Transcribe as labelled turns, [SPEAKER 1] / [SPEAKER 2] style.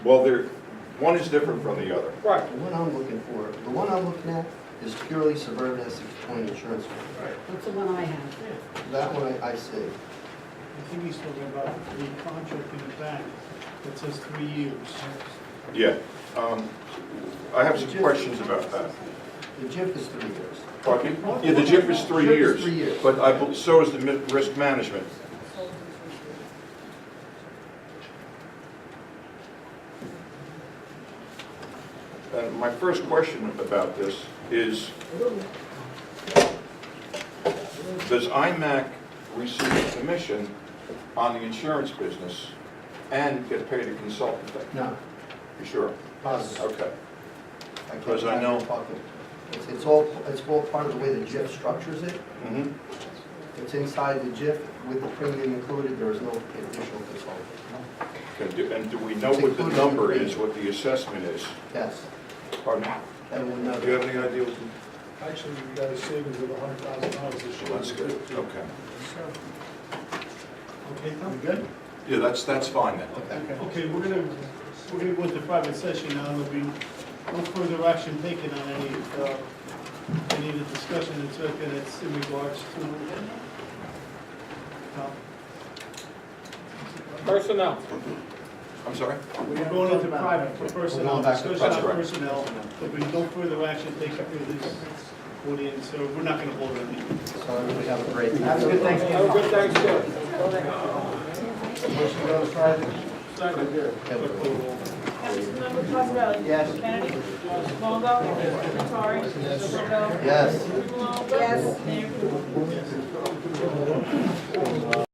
[SPEAKER 1] Well, they're, one is different from the other.
[SPEAKER 2] Right.
[SPEAKER 3] The one I'm looking for, the one I'm looking at is purely suburban Essex County Insurance Company.
[SPEAKER 4] That's the one I have.
[SPEAKER 3] That one I, I see.
[SPEAKER 5] I think he's talking about the contract in the back that says three years.
[SPEAKER 1] Yeah. Um, I have some questions about that.
[SPEAKER 3] The JIP is three years.
[SPEAKER 1] Pardon me? Yeah, the JIP is three
[SPEAKER 3] JIP is
[SPEAKER 1] years.
[SPEAKER 3] three years.
[SPEAKER 1] But I, bel- so is the mi- risk management. And my first question about this is, does IMAC receive a commission on the insurance business and get paid a consultant? fee?
[SPEAKER 3] No,
[SPEAKER 1] You sure?
[SPEAKER 3] positive.
[SPEAKER 1] Okay.
[SPEAKER 3] I can't
[SPEAKER 1] Because I
[SPEAKER 3] imagine
[SPEAKER 1] know-
[SPEAKER 3] talking. It's, it's all, it's all part of the way the JIP structures it.
[SPEAKER 1] Mhm.
[SPEAKER 3] It's inside the JIP with the premium included, there is no additional consultant.
[SPEAKER 1] And do- and do we know what the number is, what the assessment is?
[SPEAKER 3] Yes,
[SPEAKER 1] Pardon?
[SPEAKER 3] that will
[SPEAKER 1] Do you
[SPEAKER 3] never,
[SPEAKER 1] have any idea? what
[SPEAKER 5] Actually, we got a savings of a hundred thousand dollars
[SPEAKER 1] the-
[SPEAKER 5] this year.
[SPEAKER 1] Well, that's good, okay.
[SPEAKER 5] Okay, Tom?
[SPEAKER 3] good?
[SPEAKER 1] Yeah, that's, that's fine then.
[SPEAKER 3] Okay.
[SPEAKER 5] Okay, we're gonna, we're gonna go into private session now, there'll be no further action taken on any, uh, any of the discussion that's, uh, that's in regards to. uh, Tom?
[SPEAKER 2] Personnel.
[SPEAKER 1] I'm sorry?
[SPEAKER 5] We're going into private for personnel,
[SPEAKER 3] We're going back to
[SPEAKER 5] discussion on
[SPEAKER 1] private.
[SPEAKER 5] personnel, there'll be no further action taken through this audience, so we're not gonna hold anything.
[SPEAKER 3] So everybody have a break.
[SPEAKER 2] Have a good Thanksgiving. Have a good Thanksgiving.
[SPEAKER 3] Motion goes private.
[SPEAKER 6] Councilmember Cosarelli?
[SPEAKER 3] Yes.
[SPEAKER 6] Kennedy? Longo? Nattari? Longo?
[SPEAKER 3] Yes.
[SPEAKER 6] Malongo? Yes. Mayor Coogan?